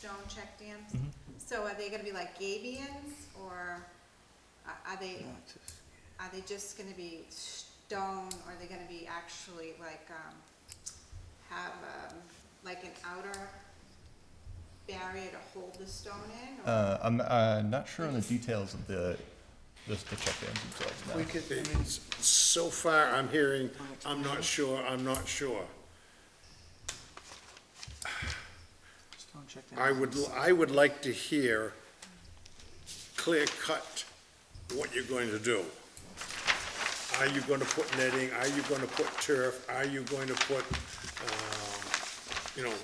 stone check dams? Mhm. So are they gonna be like gabions, or are are they, are they just gonna be stone, or are they gonna be actually like, um, have, um, like an outer barrier to hold the stone in? or- Uh, I'm uh, not sure on the details of the, the the check dams themselves now. We could, I mean, s- so far, I'm hearing, I'm not sure, I'm not sure. Stone check dams. I would, l- I would like to hear clear cut what you're going to do. Are you going to put netting? Are you going to put turf? Are you going to put, um, you know,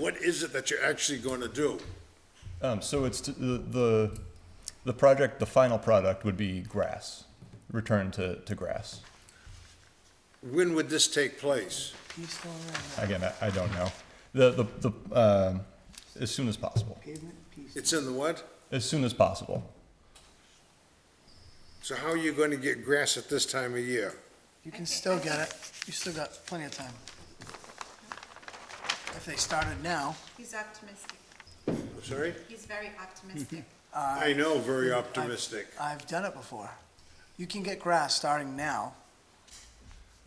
what is it that you're actually going to do? Um, so it's t- the, the the project. The final product would be grass, return to, to grass. When would this take place? You still around that Again, I, I don't know. The the, the um, as soon as possible. pavement piece? It's in the what? As soon as possible. So how are you going to get grass at this time of year? You can still get it. You still got plenty of time. If they started now, He's optimistic, I'm sorry? he's very optimistic. I know, very optimistic, I've done it before. You can get grass starting now.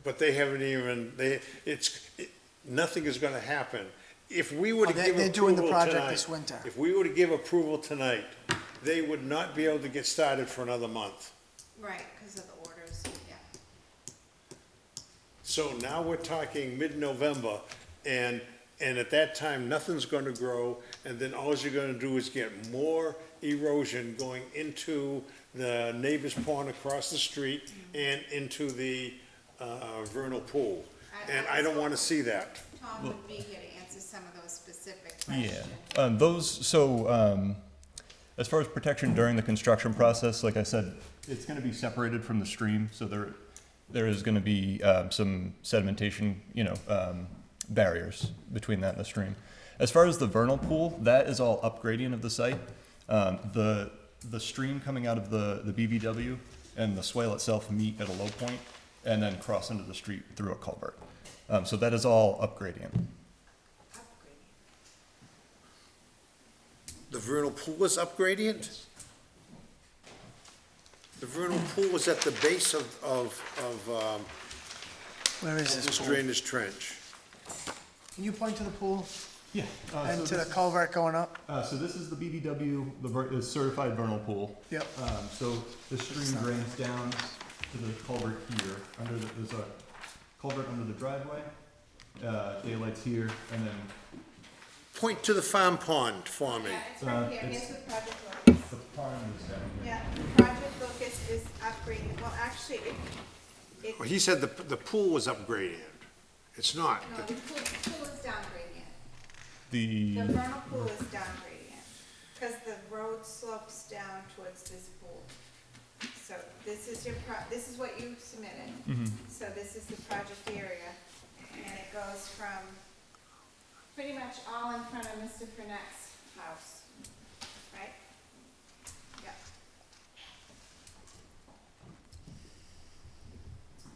but they haven't even, they, it's, it- nothing is going to happen. If we were to Oh, they- give they're doing the approval project tonight- this winter. If we were to give approval tonight, they would not be able to get started for another month. Right, because of the orders, yeah. So now we're talking mid-November, and, and at that time, nothing's going to grow, and then all you're going to do is get more erosion going into the neighbor's pond across the street and into the uh, vernal pool. I- And I- I don't want to see that. Tom would be here to answer some of those specific Yeah. questions. Um, those so um, as far as protection during the construction process, like I said, it's going to be separated from the stream, so there there is going to be um, some sedimentation, you know, um, barriers between that and the stream. As far as the vernal pool, that is all upgradient of the site. Um, the the stream coming out of the the BVW and the swale itself meet at a low point and then cross into the street through a culvert. Um, so that is all upgradient. Upgrading. The vernal pool was upgradient? The vernal pool was at the base of, of, of um, Where is this this pool? drainage trench. Can you point to the pool Yeah. and to the culvert going up? Uh, so this is the BBW, the ver- the certified vernal pool. Yep. Um, so the stream drains down to the culvert here, under the, there's a culvert under the driveway. Uh, daylight's here, and then Point to the farm pond for me. Yeah, it's Uh, right here, it's- here's the project locus. the pond is down here. Yeah, the project locus is upgrading, well, actually, it, it, Well, he said the, the pool was upgraded. It's not. no, the pool, the pool is downgrading. The The, vernal pool is downgrading, because the road slopes down towards this pool. So this is your pro, this is what you submitted. So this is the project area, and it goes from pretty much all in front of Mr. Frenette's house, right? Yep.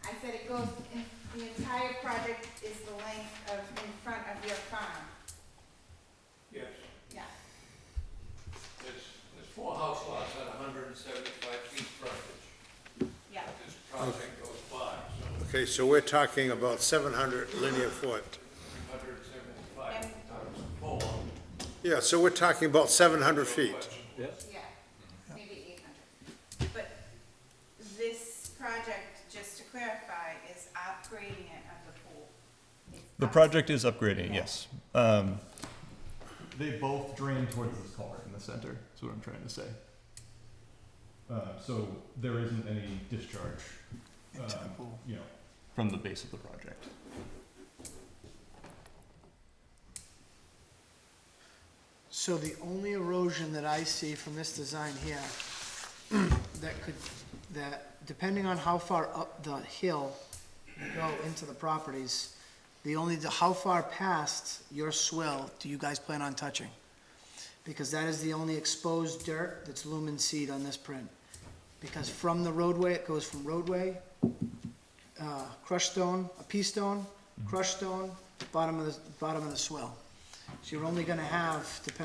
I said it goes, in the entire project is the length of, in front of your farm, Yes, yeah. there's, there's four house lots at hundred and seventy-five feet frontage. Yeah, This project goes by, so Okay, so we're talking about seven hundred linear foot. hundred and seventy-five times four. Yeah, so we're talking about seven hundred feet. question. yeah, Mm-hmm. maybe eight hundred. But this project, just to clarify, is upgrading it of the pool. It's the up- project is upgrading, yes. Um, they both drain towards this culvert in the center, is what I'm trying to say. Uh, so there isn't any discharge, Into the um, pool. you know, from the base of the project. So the only erosion that I see from this design here, that could, that depending on how far up the hill you go into the properties, the only, the how far past your swell do you guys plan on touching? Because that is the only exposed dirt that's lumen seed on this print. Because from the roadway, it goes from roadway, uh, crushed stone, a pea stone, crushed stone, bottom of the, bottom of the swell. So you're only gonna have, depending